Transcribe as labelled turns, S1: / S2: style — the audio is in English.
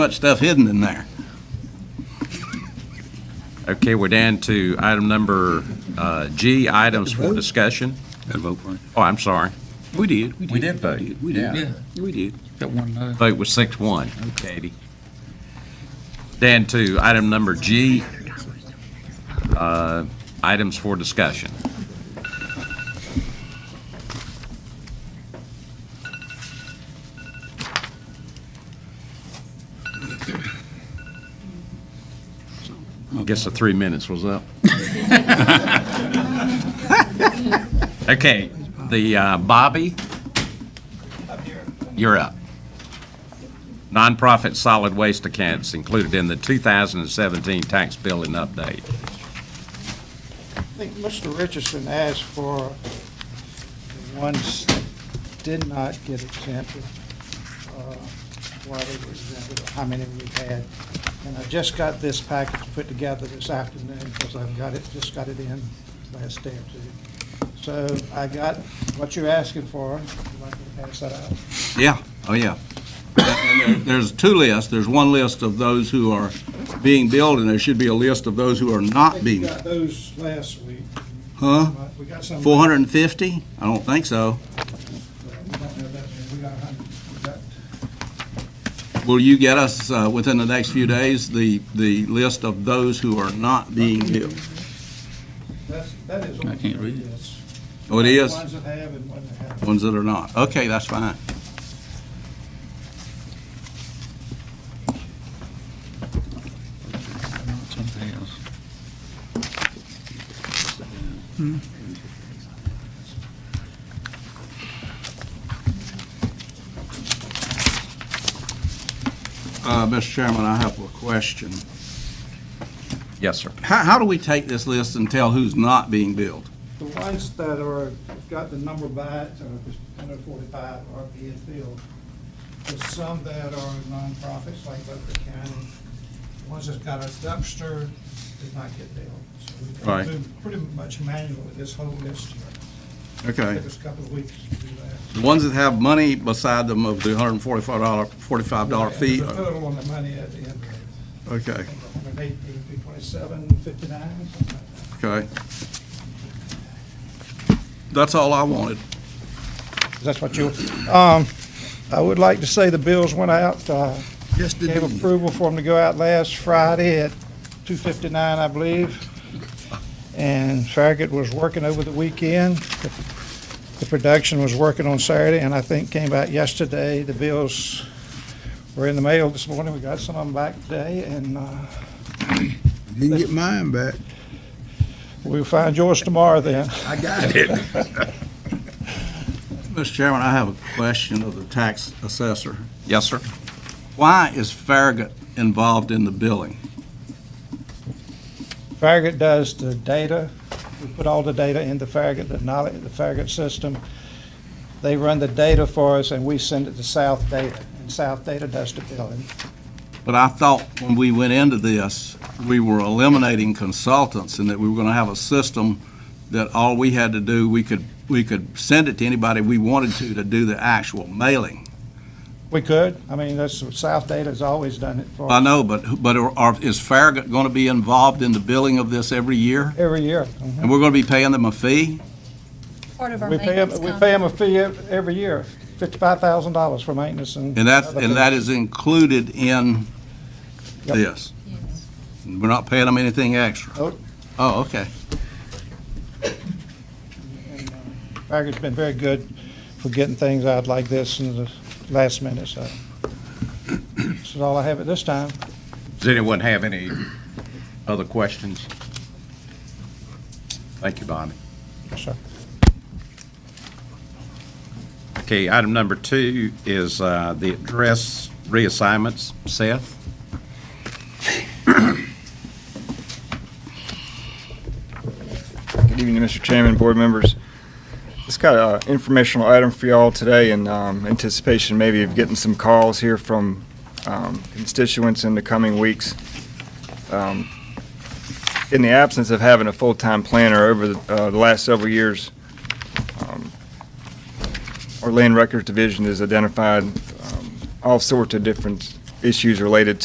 S1: much stuff hidden in there.
S2: Okay, we're down to item number uh, G, items for discussion.
S1: Gotta vote for it.
S2: Oh, I'm sorry.
S1: We did. We
S2: did vote.
S1: We
S3: Yeah.
S1: did. We did.
S3: That one, uh,
S2: Vote was six one. Katie. Down to item number G, uh, items for discussion. I guess the three minutes was up. Okay, the uh, Bobby? You're up. Nonprofit solid waste accounts included in the 2017 tax bill and update.
S4: I think Mr. Richardson asked for the ones that did not get exempted, uh, why they were exempted, or how many we had. And I just got this package put together this afternoon, because I've got it, just got it in last day or two. So I got what you're asking for, I'd like to pass that out.
S1: Yeah, oh, yeah. And there- There's two lists. There's one list of those who are being billed, and there should be a list of those who are
S4: I
S1: not
S4: think we
S1: being.
S4: got those last week.
S1: Huh?
S4: We got some.
S1: 450? I don't think so.
S4: We don't have that many. We got a hundred. We got-
S1: Will you get us, uh, within the next few days, the, the list of those who are not being billed?
S4: That's, that is.
S3: I can't read it.
S4: Yes.
S1: Oh, it is?
S4: Ones that have and ones that haven't.
S1: Ones that are not. Okay, that's fine.
S3: something else.
S1: Uh, Mr. Chairman, I have a question.
S2: Yes, sir.
S1: How, how do we take this list and tell who's not being billed?
S4: The ones that are, got the number by it, or 145 are being filled. There's some that are nonprofits, like Butler County. Ones that's got a dumpster did not get billed. So we've
S1: Right.
S4: been Pretty much manual with this whole list here.
S1: Okay.
S4: Took us a couple of weeks to do that.
S1: The ones that have money beside them of the hundred and forty-four dollar, forty-five dollar fee, uh,
S4: And the total on the money at the end, of
S1: okay,
S4: it, 118, 327, 59, something like that.
S1: okay. That's all I wanted.
S4: That's what you, um, I would like to say the bills went out, uh,
S1: Yes, did
S4: gave approval for them to go out last Friday at 2:59, I believe. And Farragut was working over the weekend. The production was working on Saturday, and I think came out yesterday. The bills were in the mail this morning. We got some of them back today, and uh,
S5: Didn't get mine back.
S4: we'll find yours tomorrow then.
S5: I got it.
S1: Mr. Chairman, I have a question of the tax assessor.
S2: Yes, sir.
S1: Why is Farragut involved in the billing?
S4: Farragut does the data. We put all the data into Farragut, the knowledge, the Farragut system. They run the data for us, and we send it to South Data, and South Data does the billing.
S1: But I thought when we went into this, we were eliminating consultants and that we were gonna have a system that all we had to do, we could, we could send it to anybody we wanted to, to do the actual mailing.
S4: We could, I mean, that's, South Data has always done it for
S1: I
S4: us
S1: know, but, but are- are, is Farragut going to be involved in the billing of this every year?
S4: every year.
S1: And we're going to be paying them a fee?
S6: Part of our
S4: We pay them,
S6: maintenance
S4: we pay them
S6: contract.
S4: a fee ev- every year, fifty-five thousand dollars for maintenance and.
S1: And that's,
S4: other
S1: and that is included in
S4: Yep.
S1: this?
S6: Yes.
S1: We're not paying them anything extra?
S4: Nope.
S1: Oh, okay.
S4: things. And, uh, Farragut's been very good for getting things out like this in the last minute, so. This is all I have at this time.
S2: Does anyone have any other questions? Thank you, Bonnie.
S4: Yes, sir.
S2: Okay, item number two is uh, the address reassignments. Seth?
S7: Good evening, Mr. Chairman, board members. Just got an informational item for y'all today in um, anticipation maybe of getting some calls here from um, constituents in the coming weeks. Um, In the absence of having a full-time planner over the uh, the last several years, um, our Land Records Division has identified um, all sorts of different issues related